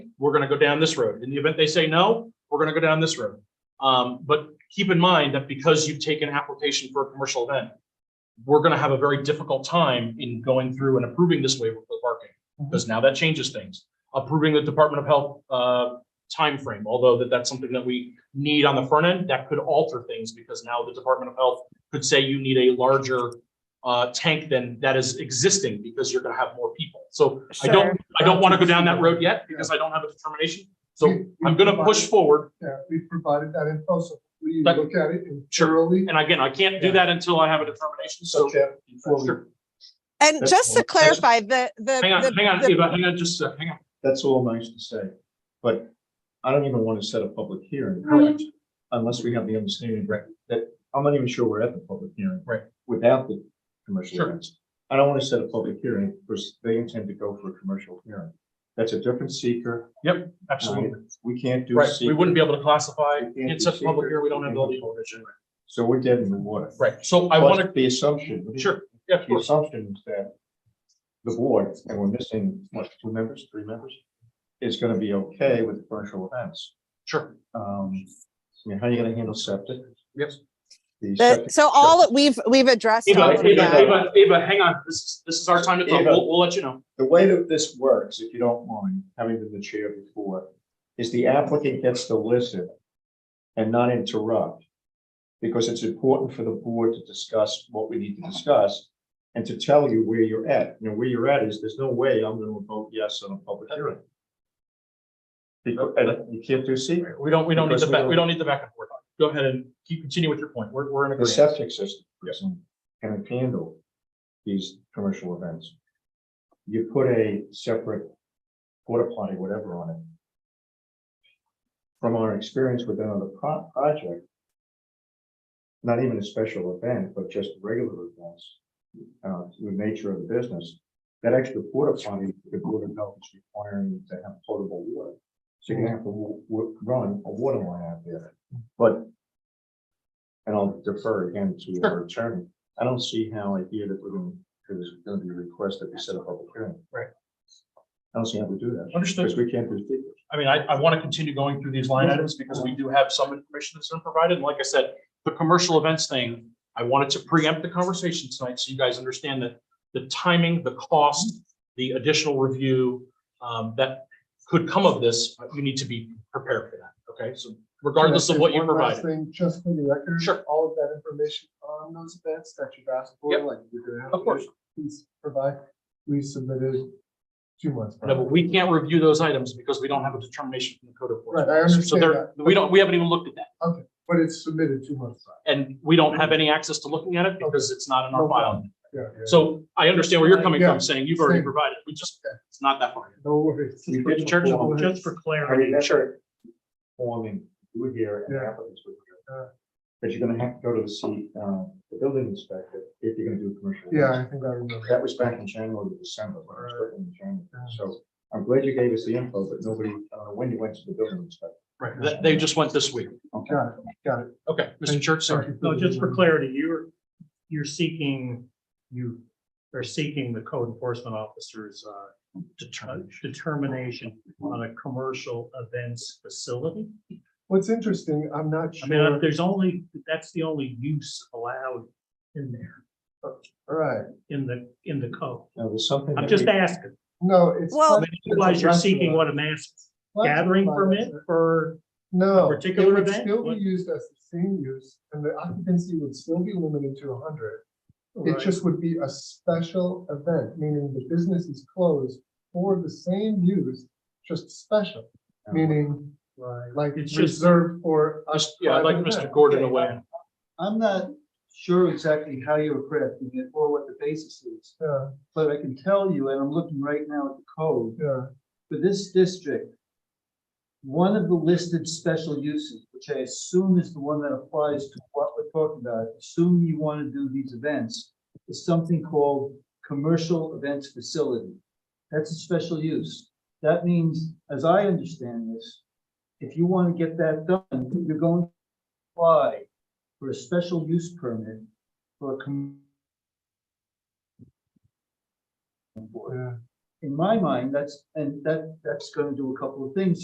we're gonna go down this road. In the event they say no, we're gonna go down this road. Um, but keep in mind that because you take an application for a commercial event, we're gonna have a very difficult time in going through and approving this waiver for parking, because now that changes things. Approving the Department of Health, uh, timeframe, although that, that's something that we need on the front end, that could alter things, because now the Department of Health could say you need a larger, uh, tank than that is existing, because you're gonna have more people. So I don't, I don't wanna go down that road yet, because I don't have a determination, so We- we I'm gonna push provided- forward. Yeah, we provided that info, so we But- look at it and Sure. thoroughly. And again, I can't do that until I have a determination, so. Okay, before we- Sure. And That's just to all. That's- clarify, the, the. Hang on, the- hang on, the- Eva, hang on, just, a sec, hang on. That's all nice to say, but I don't even want to set a public hearing. Correct. Unless we have the understanding that- that, I'm not even sure we're at the public hearing. Right. Without the commercial Sure. events. I don't want to set a public hearing because they intend to go for a commercial hearing. That's a different seeker. Absolutely. We can't do. Right, we seeker. wouldn't be able to classify, We can't do it's such a public secret. hearing, we don't have the legal vision. So we're dead in the water. Right, so I Plus, want The assumption. to, sure, yeah, of The course, assumption is that the board, and we're missing, what, two members, three members? Is going to be okay with commercial events. sure. Um, I mean, how are you gonna handle septic? Yes. The the- septic- So all, that we've, we've addressed. all Eva, of Eva, that. Eva, Eva, hang on, this, is this is our time to talk, Eva. we'll, we'll let you know. The way that this works, if you don't mind, having been the chair before, is the applicant gets to listen and not interrupt. Because it's important for the board to discuss what we need to discuss and to tell you where you're at. You know, where you're at is, there's no way I'm gonna vote yes on a public hearing. Because, and you can't do secret. We don't, we don't need the, Because we back. don't- we don't need the back and forth. Go ahead and keep, continue with your point, we're, we're in The agreement. septic system doesn't- can handle these commercial events. You put a separate porta potty, whatever on it. From our experience with another pro- project. Not even a special event, but just regular events, uh, to the nature of the business. That extra porta potty, the Board of Health is requiring to have potable water. So you're gonna have to w- w- run a water line out there, but and I'll defer again to our attorney. I don't see how I hear that we're going, because there's going to be a request that we set up a public hearing. Right. I don't see how we do that, because Understood, we can't do secret. I mean, I, I want to continue going through these line Mm-hmm. items because we do have some information that's been provided, and like I said, the commercial events thing, I wanted to preempt the conversation tonight, so you guys understand that the timing, the cost, the additional review um, that could come of this, you need to be prepared for that, okay? So regardless of Just what you one last provided. Thing, just for the record. Sure. All of that information on those events that you've asked for, Yep. like you're gonna have. Of course. Please provide, we submitted two months. No, but we can't review those items because we don't have a determination from the code of Right, course. I So understand there, that, we don't, we haven't even looked at that, but it's submitted two months. back. and we don't have any access to looking at it because it's not in our No file. problem. Yeah, yeah. So I understand where you're coming Yeah. from, saying you've already Same. provided, we just, it's not that far. No worries. We did Just for- perform- just for I clarity, mean, that's our forming, you were here and Yeah. applicants were Yeah. here. But you're going to have to go to the seat, um, the building inspector, if you're going to do commercial. Yeah, I events. think I remember. That was back in January, to December, when I was working in January. So I'm glad you gave us the info, but nobody, uh, when you went to the building inspector. right, that- they just went this week. Okay. Got it, got it. Okay, Mr. Church, sorry. Thank you No, the just for reminder. clarity, you're, you're seeking, you are seeking the code enforcement officer's uh, determination on a commercial events facility. What's interesting, I'm not I mean, sure, there's only, that's the only use allowed in there, all right, in the, in the code. Now, there's something. I'm that just we- asking. no, it's. Well- I mean, Otherwise, you're seeking what a mass gathering permit for, No. A particular It would event? still What? be used as the same use, and the occupancy would still be limited to hundred. It Right. just would be a special event, meaning the business is closed for the same use, just special, meaning like It's it's just- reserved for us. Yeah, I'd like private Mr. event. Gordon away. I'm not sure exactly how you're crafting it or what the basis is, Yeah, but I can tell you, and I'm looking right now at the code, yeah, for this district, one of the listed special uses, which I assume is the one that applies to what we're talking about, assume you want to do these events, is something called commercial events facility. That's a special use. That means, as I understand this, if you want to get that done, you're going to apply for a special use permit for a com- eh, yeah. in my mind, that's, and that, that's gonna do a couple of things